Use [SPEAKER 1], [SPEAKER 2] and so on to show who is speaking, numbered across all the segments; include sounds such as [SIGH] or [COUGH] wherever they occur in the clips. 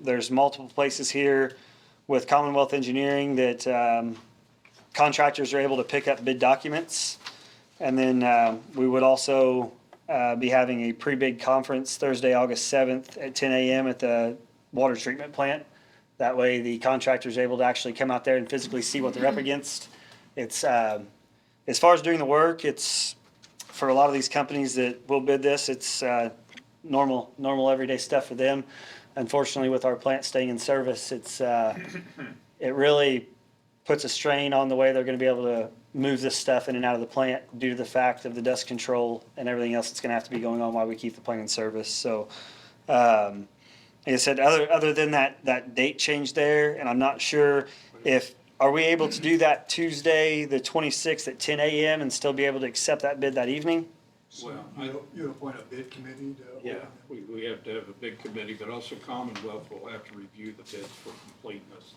[SPEAKER 1] there's multiple places here with Commonwealth Engineering that um, contractors are able to pick up bid documents. And then uh, we would also uh, be having a pre-bid conference Thursday, August 7th at 10 a.m. at the water treatment plant. That way, the contractor's able to actually come out there and physically see what they're up against. It's, um, as far as doing the work, it's, for a lot of these companies that will bid this, it's uh, normal, normal everyday stuff for them. Unfortunately, with our plant staying in service, it's, uh, it really puts a strain on the way they're going to be able to move this stuff in and out of the plant due to the fact of the dust control and everything else that's going to have to be going on while we keep the plant in service. So, um, like I said, other other than that that date change there, and I'm not sure if are we able to do that Tuesday the 26th at 10 a.m. and still be able to accept that bid that evening.
[SPEAKER 2] Well, I-
[SPEAKER 3] You you appoint a bid committee to.
[SPEAKER 2] Yeah, we, we have to have a big committee, but also Commonwealth will have to review the bids for completeness.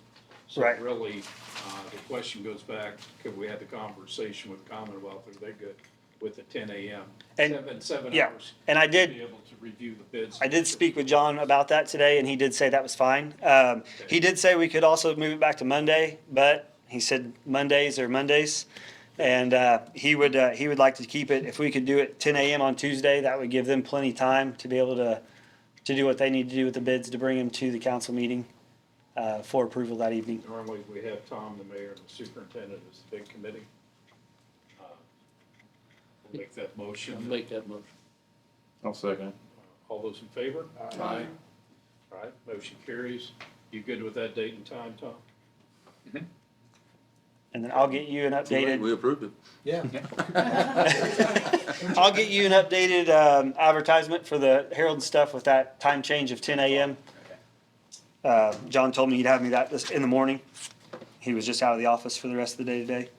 [SPEAKER 2] So
[SPEAKER 1] Right.
[SPEAKER 2] really, uh, the question goes back, could we have the conversation with Commonwealth, are they good with the ten AM?
[SPEAKER 1] And-
[SPEAKER 2] Seven, seven
[SPEAKER 1] yeah,
[SPEAKER 2] hours.
[SPEAKER 1] and I did-
[SPEAKER 2] To be able to review the bids.
[SPEAKER 1] I did speak with John about that today, and he did say that was fine. Um, he did say we could also move it back to Monday, but he said Mondays are Mondays, and uh, he would uh, he would like to keep it. If we could do it 10 a.m. on Tuesday, that would give them plenty time to be able to to do what they need to do with the bids to bring them to the council meeting uh, for approval that evening.
[SPEAKER 2] Normally, we have Tom, the mayor, and the superintendent as the big committee. Uh, we'll Make that
[SPEAKER 4] I'll
[SPEAKER 2] motion.
[SPEAKER 4] make that motion.
[SPEAKER 5] I'll second.
[SPEAKER 2] All those in favor?
[SPEAKER 4] Aye.
[SPEAKER 2] All right, motion carries. You good with that date and time, Tom?
[SPEAKER 1] And then I'll get you an updated
[SPEAKER 5] We approved it.
[SPEAKER 3] Yeah.
[SPEAKER 1] [LAUGHS] I'll get you an updated um, advertisement for the Herald and stuff with that time change of 10 a.m. Uh, John told me he'd have me that this, in the morning. He was just out of the office for the rest of the day today.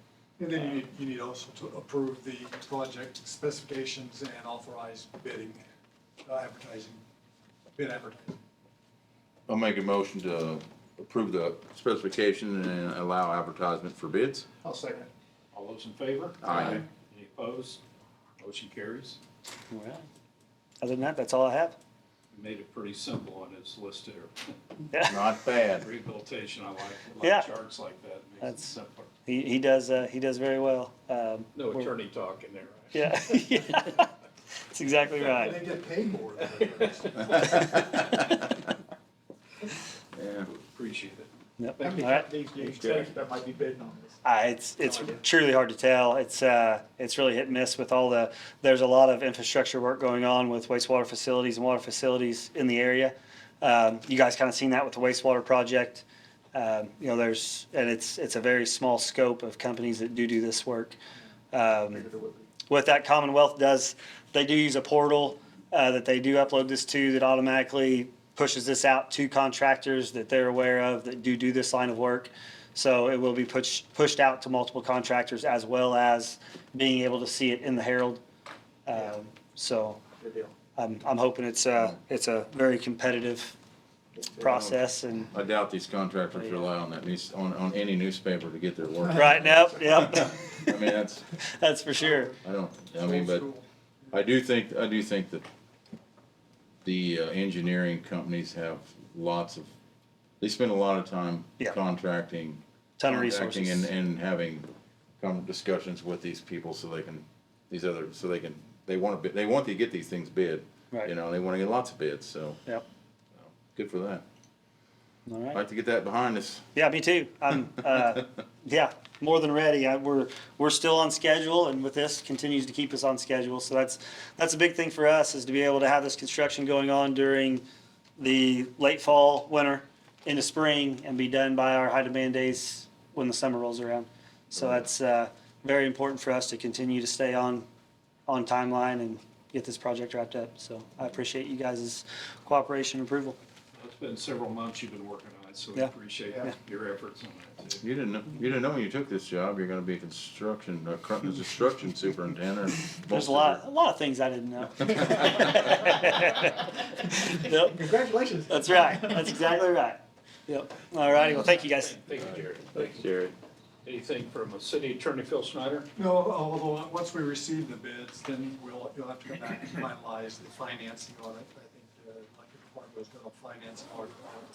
[SPEAKER 3] And then you need, you need also to approve the project specifications and authorize bidding, uh, advertising, bid advertising.
[SPEAKER 5] I'll make a motion to approve the specification and allow advertisement for bids.
[SPEAKER 3] I'll second.
[SPEAKER 2] All those in favor?
[SPEAKER 5] Aye.
[SPEAKER 2] Any opposed? Motion carries.
[SPEAKER 1] Other than that, that's all I have.
[SPEAKER 2] We Made it pretty simple on his list here.
[SPEAKER 5] Not bad. [LAUGHS]
[SPEAKER 2] Rehabilitation, I like, I
[SPEAKER 1] Yeah.
[SPEAKER 2] like charts like that, makes it
[SPEAKER 1] That's-
[SPEAKER 2] simpler.
[SPEAKER 1] He, he does uh, he does very well. Um,
[SPEAKER 2] No
[SPEAKER 1] we're-
[SPEAKER 2] attorney talk in there, right?
[SPEAKER 1] [LAUGHS] Yeah, [LAUGHS] that's exactly
[SPEAKER 3] And
[SPEAKER 1] right.
[SPEAKER 3] they get paid more than [LAUGHS] the rest.
[SPEAKER 5] Yeah.
[SPEAKER 2] Appreciate it.
[SPEAKER 1] Yep.
[SPEAKER 3] How
[SPEAKER 1] All
[SPEAKER 3] many
[SPEAKER 1] right.
[SPEAKER 3] companies do you
[SPEAKER 5] Okay.
[SPEAKER 3] expect that might be bidding on this?
[SPEAKER 1] Uh, it's it's truly hard to tell. It's uh, it's really hit and miss with all the. There's a lot of infrastructure work going on with wastewater facilities and water facilities in the area. Um, you guys kind of seen that with the wastewater project. Um, you know, there's and it's it's a very small scope of companies that do do this work. Um,
[SPEAKER 3] Figured it would be.
[SPEAKER 1] what that Commonwealth does, they do use a portal uh, that they do upload this to that automatically pushes this out to contractors that they're aware of that do do this line of work. So it will be pushed pushed out to multiple contractors as well as being able to see it in the Herald. Um, so
[SPEAKER 3] Good deal.
[SPEAKER 1] I'm I'm hoping it's a it's a very competitive process and
[SPEAKER 5] I doubt these contractors rely on that news, on, on any newspaper to get their work.
[SPEAKER 1] right now, yep,
[SPEAKER 5] [LAUGHS] I mean, that's,
[SPEAKER 1] that's for sure.
[SPEAKER 5] I don't, I mean, but I do think, I do think that the uh, engineering companies have lots of, they spend a lot of time
[SPEAKER 1] Yeah.
[SPEAKER 5] contracting
[SPEAKER 1] Ton of
[SPEAKER 5] contacting
[SPEAKER 1] resources.
[SPEAKER 5] And, and having come discussions with these people so they can, these other, so they can, they want to, they want to get these things bid.
[SPEAKER 1] Right.
[SPEAKER 5] You know, they want to get lots of bids, so
[SPEAKER 1] Yep.
[SPEAKER 5] good for that.
[SPEAKER 1] All right.
[SPEAKER 5] I'd like to get that behind us.
[SPEAKER 1] Yeah, me too. I'm, uh, yeah, more than ready. I, we're we're still on schedule, and with this, continues to keep us on schedule. So that's that's a big thing for us is to be able to have this construction going on during the late fall, winter, into spring, and be done by our high demand days when the summer rolls around. So that's uh, very important for us to continue to stay on on timeline and get this project wrapped up. So I appreciate you guys' cooperation and approval.
[SPEAKER 2] It's been several months you've been working on it, so we
[SPEAKER 1] Yeah.
[SPEAKER 2] appreciate
[SPEAKER 3] Yeah.
[SPEAKER 2] your efforts on that too.
[SPEAKER 5] You didn't, know you didn't know when you took this job, you're gonna be a construction, a cr-
[SPEAKER 1] [LAUGHS]
[SPEAKER 5] a construction superintendent.
[SPEAKER 1] There's a lot, a lot of things I didn't know. Yep,
[SPEAKER 3] Congratulations.
[SPEAKER 1] that's right.
[SPEAKER 3] [LAUGHS]
[SPEAKER 1] That's exactly right. Yep. All righty. Well, thank you guys.
[SPEAKER 2] Thank you, Jared.
[SPEAKER 5] Thanks, Jerry.
[SPEAKER 2] Anything from a city attorney, Phil Snyder?
[SPEAKER 3] No, although, once we receive the bids, then we'll, you'll have to come back and finalize the financing on it. I think, uh, like, the department was gonna finance part of it.